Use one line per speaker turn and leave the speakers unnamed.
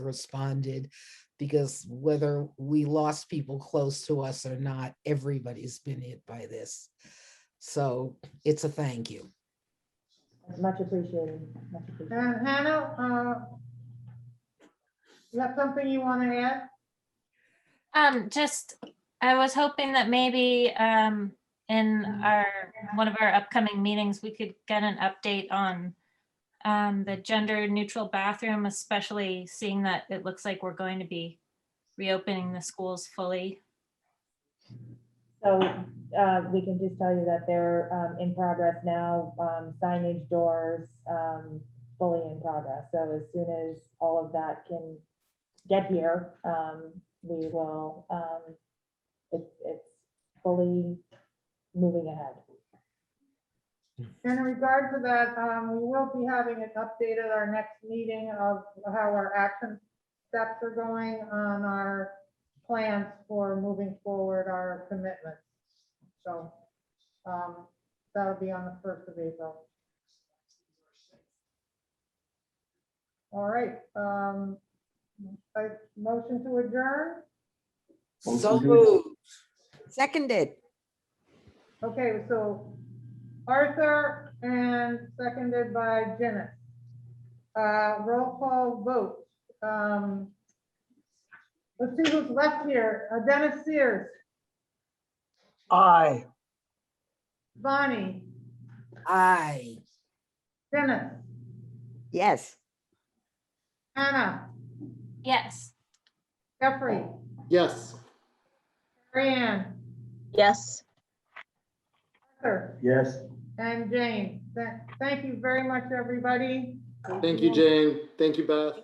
responded because whether we lost people close to us or not, everybody's been hit by this. So it's a thank you.
Much appreciated, much appreciated.
And Uh, Hannah, uh, you have something you want to add?
Um, just, I was hoping that maybe, um, in our, one of our upcoming meetings, we could get an update on um, the gender neutral bathroom, especially seeing that it looks like we're going to be reopening the schools fully.
So uh, we can just tell you that they're um, in progress now, um, signage doors um, fully in progress. So as soon as all of that can get here, um, we will, um, it's, it's fully moving ahead.
In regard to that, um, we will be having it updated at our next meeting of how our action steps are going on our plans for moving forward our commitments. So, um, that'll be on the first of April. All right, um, a motion to adjourn?
So moved.
Seconded.
Okay, so Arthur and seconded by Janice. Uh, roll call vote. Um, Let's see who's left here. Uh, Dennis Sears,
Aye.
Bonnie,
Aye.
Dennis,
Yes.
Anna,
Yes.
Jeffrey,
Yes.
Marianne,
Yes.
Arthur,
Yes.
and Jane. Th- Thank you very much, everybody.
Thank you, Jane. Thank you, Beth.